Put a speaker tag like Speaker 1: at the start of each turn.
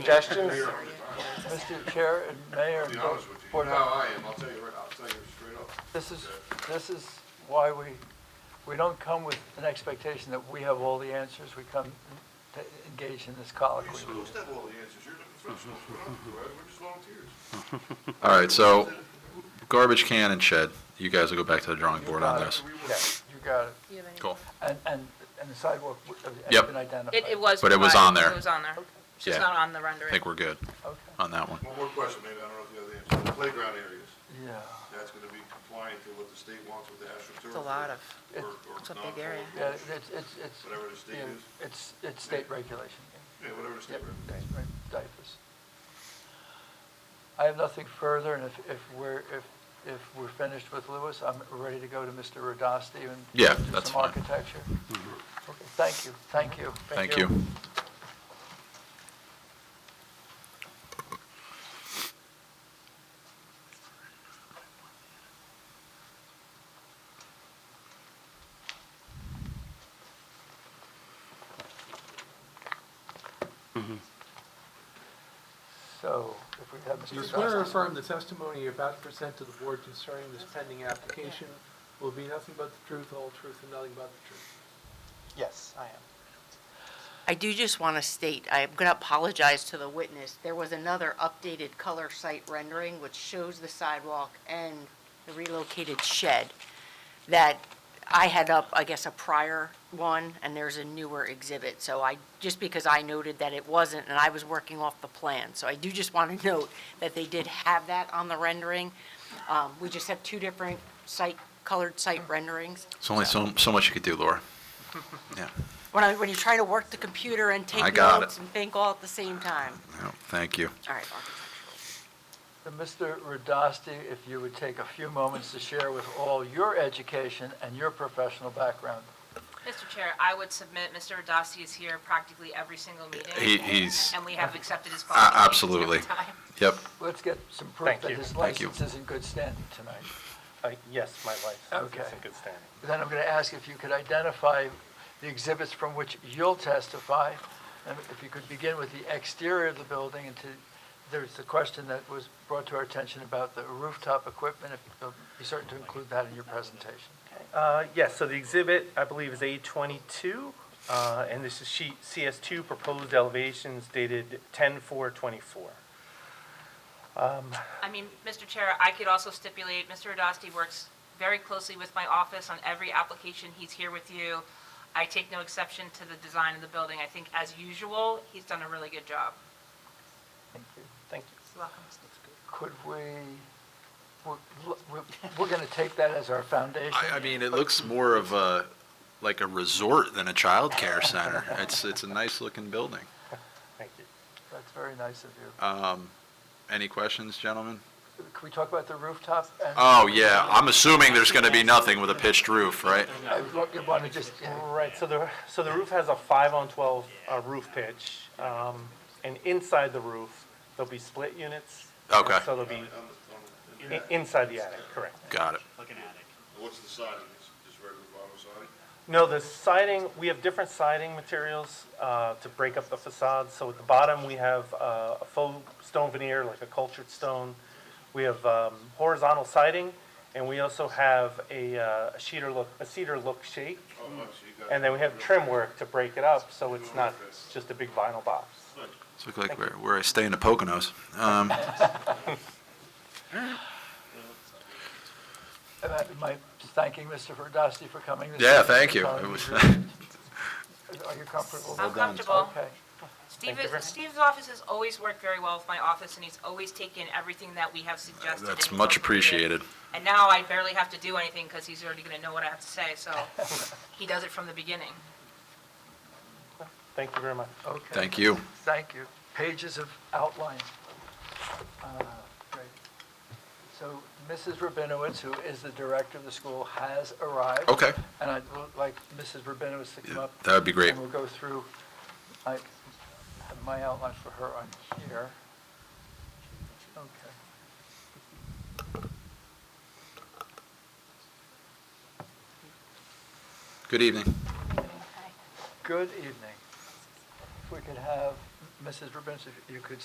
Speaker 1: Suggestions?
Speaker 2: Mr. Chair and Mayor,
Speaker 3: I'll be honest with you,
Speaker 2: Board
Speaker 3: you know
Speaker 2: of-
Speaker 3: how I am, I'll tell you right, I'll tell you straight up.
Speaker 2: this is, this is why we, we don't come with an expectation that we have all the answers. We come to engage in this colloquy.
Speaker 3: You're supposed to have all the answers, you're the professionals, we're not, we're just volunteers.
Speaker 4: All right, so garbage can and shed, you guys will go back to the drawing board on this.
Speaker 2: Yeah, you got it.
Speaker 5: You have any-
Speaker 4: Cool.
Speaker 2: And, and, and the sidewalk has
Speaker 4: Yep.
Speaker 2: been identified.
Speaker 5: It, it was.
Speaker 4: But it was
Speaker 5: provided,
Speaker 4: on there.
Speaker 5: It was on there. It's just
Speaker 4: Yeah.
Speaker 5: not on the
Speaker 4: I
Speaker 5: rendering.
Speaker 4: think we're good
Speaker 2: Okay,
Speaker 4: on that one.
Speaker 3: One more question, maybe, I don't know if you have the answer, The playground areas,
Speaker 2: yeah,
Speaker 3: that's gonna be compliant to what the state wants with the AstroTurf.
Speaker 6: It's a lot of,
Speaker 3: or- or
Speaker 6: it's a big
Speaker 3: non-public
Speaker 6: area.
Speaker 2: yeah, it's, it's, it's.
Speaker 3: Whatever the state
Speaker 2: yeah,
Speaker 3: is.
Speaker 2: It's, it's state regulation.
Speaker 3: Yeah, whatever the
Speaker 2: Yep,
Speaker 3: state regulates.
Speaker 2: that's right, diapers. I have nothing further, and if, if we're, if, if we're finished with Lewis, I'm ready to go to Mr. Radasti and.
Speaker 4: Yeah,
Speaker 2: do
Speaker 4: that's
Speaker 2: Some
Speaker 4: fine.
Speaker 2: architecture.
Speaker 7: Mm-hmm.
Speaker 2: Okay, thank you, thank you.
Speaker 4: Thank you.
Speaker 2: So, if we have Mr.
Speaker 8: Do you swear
Speaker 2: Radasti.
Speaker 8: or affirm the testimony you're about to present to the board concerning this pending application will be nothing but the truth, the whole truth, and nothing but the truth?
Speaker 7: Yes, I am.
Speaker 6: I do just want to state, I'm going to apologize to the witness. There was another updated color site rendering which shows the sidewalk and the relocated shed that I had up, I guess, a prior one, and there's a newer exhibit. So I, just because I noted that it wasn't, and I was working off the plan. So I do just want to note that they did have that on the rendering. Um, We just have two different site, colored site renderings.
Speaker 4: There's only so, so much you could do, Laura. Yeah,
Speaker 6: When I, when you try to work the computer and
Speaker 4: I
Speaker 6: take
Speaker 4: got
Speaker 6: notes
Speaker 4: it.
Speaker 6: and think all at the same time.
Speaker 4: no, thank you.
Speaker 6: All right, architectural.
Speaker 2: And Mr. Radasti, if you would take a few moments to share with all your education and your professional background.
Speaker 5: Mr. Chair, I would submit, Mr. Radasti is here practically every single meeting.
Speaker 4: He- he's-
Speaker 5: And we have accepted his
Speaker 4: A-
Speaker 5: qualifications.
Speaker 4: Absolutely.
Speaker 5: every time.
Speaker 4: Yep,
Speaker 2: Let's get some proof
Speaker 7: Thank
Speaker 2: that
Speaker 7: you.
Speaker 2: his
Speaker 4: Thank you.
Speaker 2: license is in good standing tonight.
Speaker 7: Uh, Yes, my license is
Speaker 2: Okay.
Speaker 7: in good standing.
Speaker 2: Then I'm going to ask if you could identify the exhibits from which you'll testify, and if you could begin with the exterior of the building, and to, there's the question that was brought to our attention about the rooftop equipment, if you'll be certain to include that in your presentation.
Speaker 7: Uh, Yes, so the exhibit, I believe, is A22, uh, and this is sheet CS2, proposed elevations dated 10/4/24.
Speaker 5: I mean, Mr. Chair, I could also stipulate, Mr. Radasti works very closely with my office on every application. He's here with you. I take no exception to the design of the building. I think, as usual, he's done a really good job.
Speaker 2: Thank you.
Speaker 7: Thank you.
Speaker 5: You're welcome.
Speaker 2: Could we, we're- we're, we're going to take that as our foundation?
Speaker 4: I, I mean, it looks more of a, like a resort than a childcare center. It's, it's a nice-looking building.
Speaker 7: Thank you.
Speaker 2: That's very nice of you.
Speaker 4: Um, any questions, gentlemen?
Speaker 2: Can we talk about the rooftop? and-
Speaker 4: Oh, yeah, I'm assuming there's gonna be nothing with a pitched roof, right?
Speaker 2: I want to just, yeah.
Speaker 7: Right, so the, so the roof has a 5 on 12 uh, roof pitch, um, and inside the roof, there'll be split units.
Speaker 4: Okay.
Speaker 7: So there'll be
Speaker 3: Um,
Speaker 7: i- inside the attic, correct.
Speaker 4: Got it.
Speaker 3: What's the siding, It's just regular vinyl siding?
Speaker 7: No, the siding, we have different siding materials uh, to break up the facade. So at the bottom, we have uh, a faux stone veneer, like a cultured stone. We have um, horizontal siding, and we also have a uh, a cedar look, a cedar look shake.
Speaker 3: Oh, no, so you got.
Speaker 7: And then we have trim work to break it up, so it's not just a big vinyl box.
Speaker 4: It's look like where, where I stay in the Poconos. Um,
Speaker 2: Am I- Am I thanking Mr. Verdasti for coming? this
Speaker 4: Yeah,
Speaker 2: evening?
Speaker 4: thank you.
Speaker 2: Are
Speaker 4: It was-
Speaker 2: you comfortable?
Speaker 5: I'm
Speaker 4: done.
Speaker 5: comfortable.
Speaker 2: Okay.
Speaker 5: Steve, Steve's office has always worked very well with my office, and he's always taken everything that we have suggested. and
Speaker 4: That's
Speaker 5: he's
Speaker 4: much
Speaker 5: incorporated it.
Speaker 4: appreciated.
Speaker 5: And now I barely have to do anything, because he's already gonna know what I have to say, so he does it from the beginning.
Speaker 7: Thank you very much.
Speaker 2: Okay.
Speaker 4: Thank you.
Speaker 2: Thank you. Pages of outline. Uh, Great. So Mrs. Rabinowitz, who is the director of the school, has arrived.
Speaker 4: Okay.
Speaker 2: And I'd l- like Mrs. Rabinowitz to come up.
Speaker 4: That would be great.
Speaker 2: And we'll go through, I have my outline for her on here. Okay.
Speaker 4: Good evening.
Speaker 2: Good evening. If we could have Mrs. Rubin, if you could